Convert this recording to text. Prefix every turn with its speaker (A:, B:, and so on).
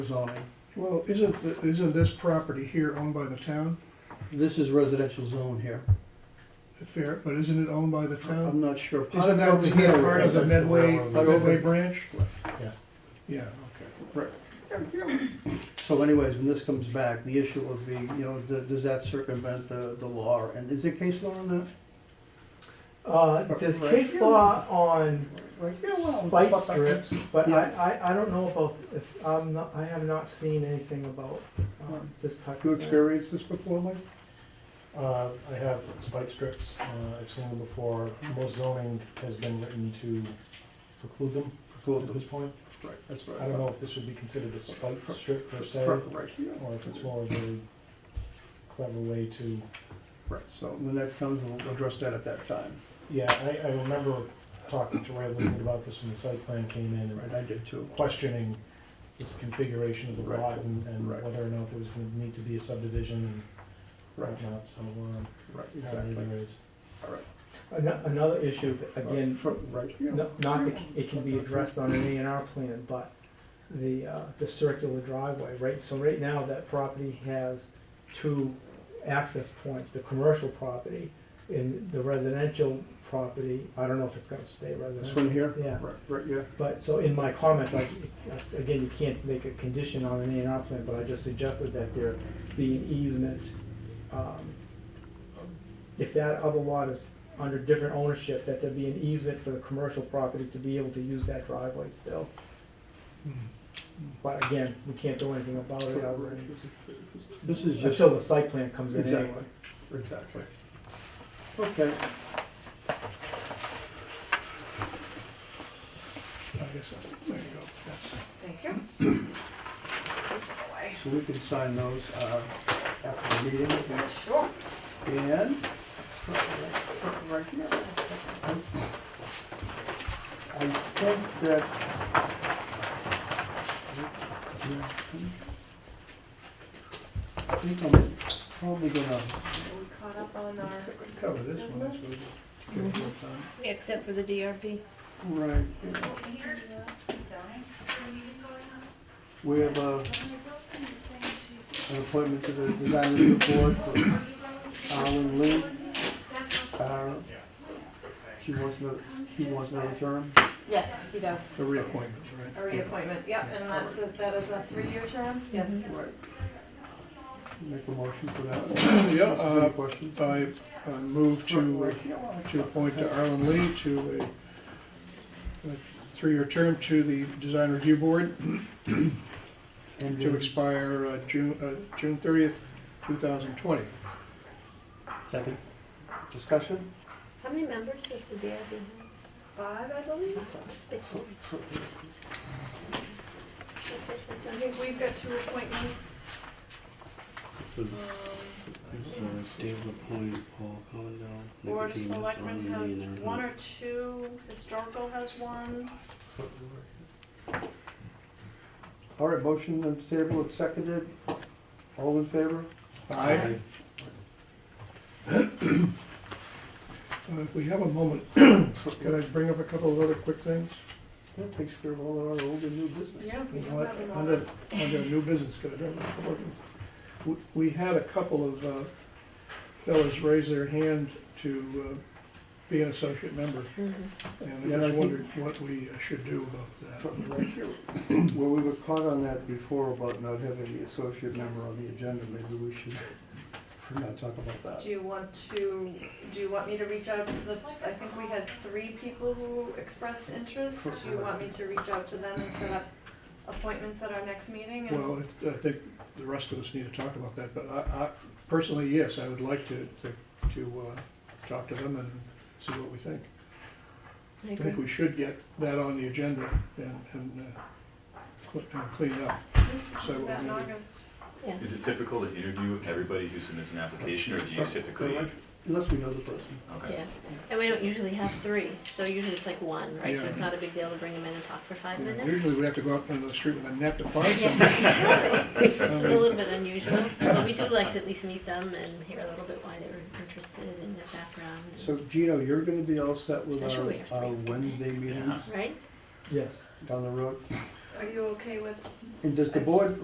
A: zoning.
B: Well, isn't, th- isn't this property here owned by the town?
A: This is residential zone here.
B: Fair, but isn't it owned by the
A: I'm
B: town?
A: not sure. Part
B: Isn't
A: of
B: that
A: over
B: over
A: here
B: here part of the
A: is-
B: Medway,
A: Part over-
B: Medway branch?
C: Yeah.
B: Yeah,
A: Right. So anyways, when this comes back, the issue would be, you know, th- does that circumvent the, the law? And is there case law on that?
C: Uh, there's case law on
A: Right.
C: spike strips, but I,
A: Yeah.
C: I, I don't know about, if, I'm not, I have not seen anything about, um, this type
A: You
C: of thing.
A: experienced this before, Mike?
D: Uh, I have spike strips, uh, I've seen them before, most zoning has been written to preclude them at this point.
A: Right, that's
D: I don't know if this would be considered a spike strip per se, or
A: Right here.
D: if it's more of a clever way to,
A: Right, so when that comes, we'll address that at that time.
D: yeah, I, I remember talking to Ray a little bit about this when the site plan came in,
A: Right,
D: and
A: I did too.
D: questioning this configuration of the
A: Right.
D: lot and, and
A: Right.
D: whether or not there was gonna need to be a subdivision and
A: Right,
D: whatnot, so, um,
A: right,
D: apparently
A: exactly.
D: there is.
A: All right.
C: Ano- Another issue, again,
A: From right here.
C: no- not, the- it can be addressed on an A and R plan, but the, uh, the circular driveway, right? So right now, that property has two access points, the commercial property and the residential property, I don't know if it's gonna stay
A: This
C: residential.
A: one here?
C: Yeah.
A: Right, right, yeah.
C: But, so in my comments, I, that's- again, you can't make a condition on an A and R plan, but I just suggested that there be an easement. um, If that other lot is under different ownership, that there be an easement for the commercial property to be able to use that driveway still. But again, we can't do anything about it other than-
A: This is just,
C: Oh, until the site plan comes in anyway.
A: exactly, exactly. Okay.
B: I guess, I- there you go, that's.
E: Thank you. Please go away.
A: So we can sign those uh, after the meeting,
E: Sure.
A: and I think that. I think I'm probably gonna,
E: We caught up on our,
B: Cover this one, that's
E: Business.
B: what we- give it a time.
F: Except for the DRB.
A: right, yeah. we have a, an appointment to the design review board for Alan Lee. Uh, She wants another, he wants another term,
E: yes, he does.
B: The reappointment, right?
E: A reappointment, yep, and that's, a- that is a three-year term? Yes.
A: right? Make a motion for that.
B: Yeah,
A: Any
B: uh,
A: questions?
B: I, I move to, to appoint Arlen Lee to a, a three-year term to the Design Review Board
A: And
B: to
A: then-
B: expire uh, June, uh, June thirtieth, two thousand twenty.
A: Second. Discussion?
F: How many members does the DRB have?
E: Five, I believe.
F: It's big. That's it, that's
E: I
F: one here.
E: think we've got two appointments.
G: So
E: Um,
G: this is uh, Dave LaPointe, Paul Collindale,
E: Board of
G: Nicodemus, Ron
E: Selectmen
G: Lee,
E: has
G: and
E: one or two, Historical has one.
A: All right, motion on the table, it's seconded. All in favor?
B: Aye. Uh, If we have a moment, could I bring up a couple of other quick things?
A: That takes care of all our old and new business.
E: Yeah.
B: You know what, under, under new business, could I bring up a couple of them? We- We had a couple of uh, fellas raise their hand to uh, be an associate member, and
A: Yeah, I
B: I just
A: think-
B: wondered what we uh, should do about that.
A: From right here. Well, we were caught on that before about not having the associate member on the agenda, maybe we should not talk about that.
E: Do you want to, do you want me to reach out to the, I think we had three people who expressed interest. Do you want me to reach out to them and set up appointments at our next meeting? and-
B: Well, I- I think the rest of us need to talk about that, but I, I, personally, yes, I would like to, to, to uh, talk to them and see what we think.
F: I
B: I think
F: agree.
B: we should get that on the agenda and, and uh, cl- and clean it up. So
E: Do That in
B: we-
E: August.
F: Yeah.
H: Is it typical to interview everybody who submits an application, or do you typically?
A: Unless we know the person.
H: Okay.
F: Yeah, and we don't usually have three, so usually it's like one, right? So
B: Yeah.
F: it's not a big deal to bring them in and talk for five
B: you know,
F: minutes.
B: Usually we have to go out into the street with a net to find somebody.
F: Yeah. So it's a
B: Um,
F: little bit unusual, but we do like to at least meet them and hear a little bit why they were interested in their background, and-
A: So Gino, you're gonna be all set with
F: Especially we
A: our,
F: have
A: our
F: three.
A: Wednesday meetings
F: right?
C: Yes.
A: down the road?
E: Uh,
I: Are you okay with
E: And does the board